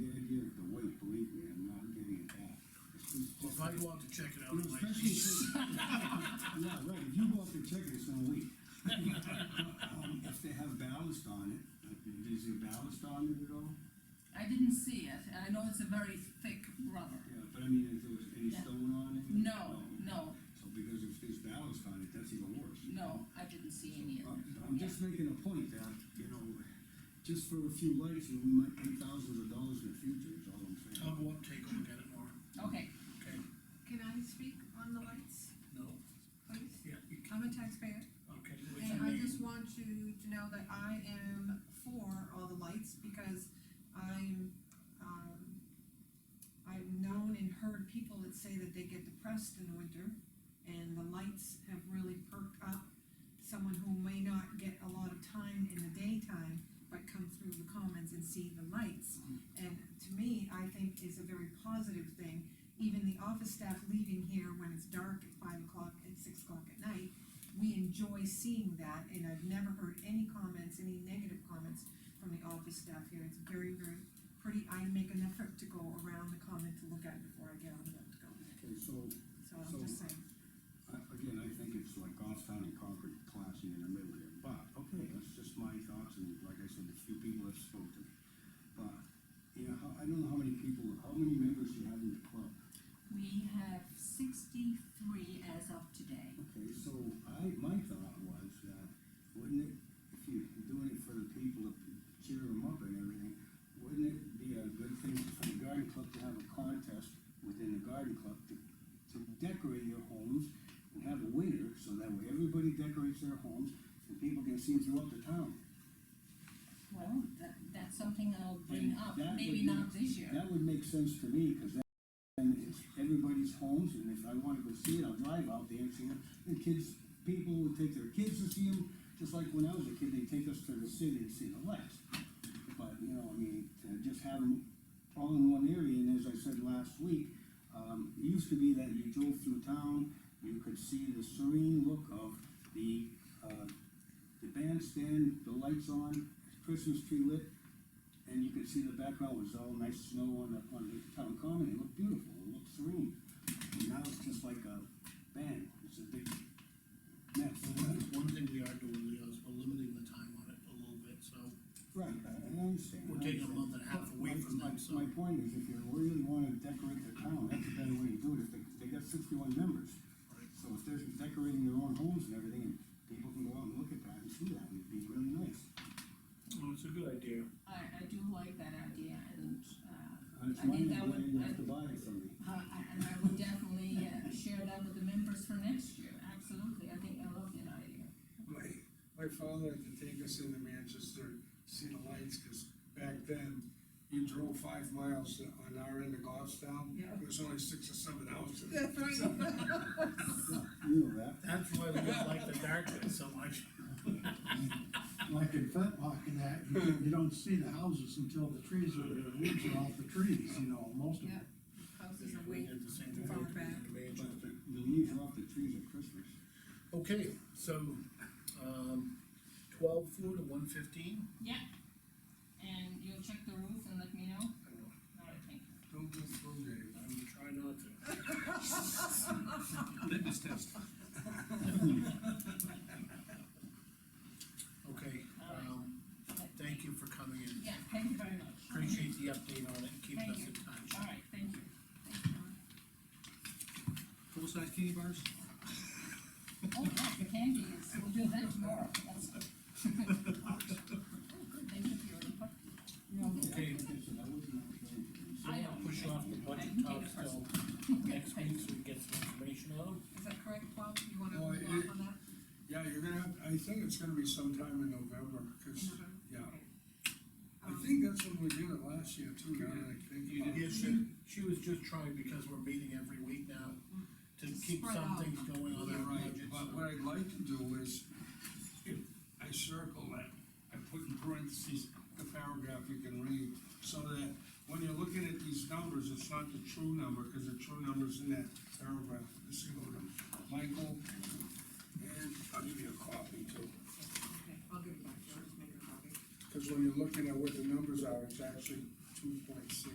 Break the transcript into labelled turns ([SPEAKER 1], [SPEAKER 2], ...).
[SPEAKER 1] go out to check it out.
[SPEAKER 2] No,
[SPEAKER 1] I'm like,
[SPEAKER 2] especially
[SPEAKER 1] "Jeez."
[SPEAKER 2] since- Yeah, right, if you go up there checking, it's not weak. Um, If they have ballast on it, like, is there ballast on it at all?
[SPEAKER 3] I didn't see it, and I know it's a very thick rubber.
[SPEAKER 2] Yeah, but I mean, if there was any
[SPEAKER 3] Yeah.
[SPEAKER 2] stone on it?
[SPEAKER 3] No, no,
[SPEAKER 2] So because if there's ballast on it, that's even worse.
[SPEAKER 3] no, I didn't see any of it.
[SPEAKER 2] I'm I'm just making a point that, you know, just for a few lights, we might pay thousands of dollars in the future, is all I'm
[SPEAKER 1] I'll
[SPEAKER 2] saying.
[SPEAKER 1] go up, take a look at it more,
[SPEAKER 3] Okay,
[SPEAKER 1] okay?
[SPEAKER 4] Can I speak on the lights,
[SPEAKER 1] No,
[SPEAKER 4] please?
[SPEAKER 1] yeah, you can,
[SPEAKER 4] I'm a taxpayer,
[SPEAKER 1] okay, what's
[SPEAKER 4] and
[SPEAKER 1] your
[SPEAKER 4] I
[SPEAKER 1] name?
[SPEAKER 4] just want you to know that I am for all the lights, because I'm, um, I've known and heard people that say that they get depressed in the winter, and the lights have really perked up someone who may not get a lot of time in the daytime, but come through the commons and see the lights. And to me, I think is a very positive thing, even the office staff leaving here when it's dark at five o'clock and six o'clock at night, we enjoy seeing that, and I've never heard any comments, any negative comments from the office staff here, it's very, very pretty, I make an effort to go around the comment to look at it before I get on the go,
[SPEAKER 2] Okay, so,
[SPEAKER 4] so I'm just saying.
[SPEAKER 2] I, again, I think it's like Goffstown and Concord clashing in the middle here, but, okay, that's just my thoughts, and like I said, the few people I've spoken. But, you know, how- I don't know how many people, how many members you have in the club?
[SPEAKER 3] we have sixty-three as of today.
[SPEAKER 2] Okay, so I, my thought was that, wouldn't it, if you're doing it for the people to cheer them up and everything, wouldn't it be a good thing for the garden club to have a contest within the garden club to, to decorate your homes and have a winner, so that way everybody decorates their homes and people can see them throughout the town?
[SPEAKER 3] Well, that, that's something I'll bring
[SPEAKER 2] And
[SPEAKER 3] up,
[SPEAKER 2] that
[SPEAKER 3] maybe
[SPEAKER 2] would
[SPEAKER 3] not
[SPEAKER 2] make-
[SPEAKER 3] this year.
[SPEAKER 2] That would make sense to me, cause that, then it's everybody's homes, and if I wanna go see it, I'll drive out there and see them. The kids, people would take their kids to see them, just like when I was a kid, they take us to the city and see the lights. But, you know, I mean, to just have them all in one area, and as I said last week, um, it used to be that you drove through town, you could see the serene look of the, uh, the bandstand, the lights on, Christmas tree lit, and you could see the background was all nice snow on the, on the town common, it looked beautiful, it looked serene. And now it's just like a bang, it's a big mess.
[SPEAKER 1] One one thing we are doing, Leo, is we're limiting the time on it a little bit, so
[SPEAKER 2] Right, I I understand.
[SPEAKER 1] We're taking a month and a half away from them, so-
[SPEAKER 2] My point is, if you really wanna decorate the town, that's a better way to do it, if they, they got sixty-one members.
[SPEAKER 1] Right.
[SPEAKER 2] So if they're decorating their own homes and everything, and people can go out and look at that and see that, it'd be really nice.
[SPEAKER 1] well, it's a good idea.
[SPEAKER 3] I, I do like that idea, and, uh,
[SPEAKER 2] And it's
[SPEAKER 3] I think
[SPEAKER 2] money,
[SPEAKER 3] that
[SPEAKER 2] but
[SPEAKER 3] would- uh,
[SPEAKER 2] you have to buy it from me.
[SPEAKER 3] I- I- and I would definitely uh, share that with the members for next year, absolutely, I think I love that idea.
[SPEAKER 5] My, my father had to take us into Manchester, to see the lights, cause back then, you drove five miles on our end of Goffstown.
[SPEAKER 4] Yeah.
[SPEAKER 5] It was only six or seven houses.
[SPEAKER 2] You know that.
[SPEAKER 1] That's why we don't like the darkness so much.
[SPEAKER 6] like in Fetlock and that, you, you don't see the houses until the trees are, the leaves are off the trees, you know, most of
[SPEAKER 4] Yeah,
[SPEAKER 6] them.
[SPEAKER 4] houses are
[SPEAKER 1] We
[SPEAKER 4] way
[SPEAKER 1] did the same thing.
[SPEAKER 4] far back.
[SPEAKER 1] Imagine.
[SPEAKER 2] But the the leaves are off the trees at Christmas.
[SPEAKER 1] Okay, so, um, twelve four to one fifteen,
[SPEAKER 3] Yeah, and you'll check the roof and let me know?
[SPEAKER 1] I don't know,
[SPEAKER 3] All right, thank you.
[SPEAKER 5] Don't go through there.
[SPEAKER 1] I'm trying not to. Litmus test. Okay, um, thank you for coming in,
[SPEAKER 3] Yeah, thank you very much.
[SPEAKER 1] appreciate the update on it, and keeping us
[SPEAKER 3] Thank
[SPEAKER 1] in touch.
[SPEAKER 3] All right, thank you. Thank you.
[SPEAKER 5] Full-size candy bars?
[SPEAKER 3] Oh, yeah, the candy is, we'll do that tomorrow, that's good. Oh, good, thank you for your input.
[SPEAKER 1] Okay,
[SPEAKER 2] So that wasn't our plan.
[SPEAKER 1] so
[SPEAKER 3] I
[SPEAKER 1] I'll
[SPEAKER 3] don't-
[SPEAKER 1] push off the
[SPEAKER 3] I
[SPEAKER 1] budget
[SPEAKER 3] can take
[SPEAKER 1] talk
[SPEAKER 3] it
[SPEAKER 1] till next week, so we get some information out.
[SPEAKER 4] Is that correct, Bob? You wanna
[SPEAKER 5] No,
[SPEAKER 4] hold
[SPEAKER 5] it-
[SPEAKER 4] off on that?
[SPEAKER 5] Yeah, you're gonna, have- I think it's gonna be sometime in November,
[SPEAKER 4] In
[SPEAKER 5] cause,
[SPEAKER 4] November?
[SPEAKER 5] yeah,
[SPEAKER 4] Okay.
[SPEAKER 5] I
[SPEAKER 4] Um,
[SPEAKER 5] think that's when we did it last year too, now that I think
[SPEAKER 1] You
[SPEAKER 5] about
[SPEAKER 1] did,
[SPEAKER 5] it.
[SPEAKER 1] she, she was just trying because we're meeting every week now to keep
[SPEAKER 4] Spread
[SPEAKER 1] some
[SPEAKER 4] out.
[SPEAKER 1] things going on
[SPEAKER 5] You're
[SPEAKER 1] our
[SPEAKER 5] right,
[SPEAKER 1] budget.
[SPEAKER 5] but what I'd like to do is, if I circle that, I put in parentheses the paragraph you can read, so that when you're looking at these numbers, it's not the true number, because the true number's in that paragraph, this is going to Michael, and I'll give you a copy too,
[SPEAKER 4] Okay, I'll give it back to her, just make her copy.
[SPEAKER 5] because when you're looking at what the numbers are, it's actually two point six.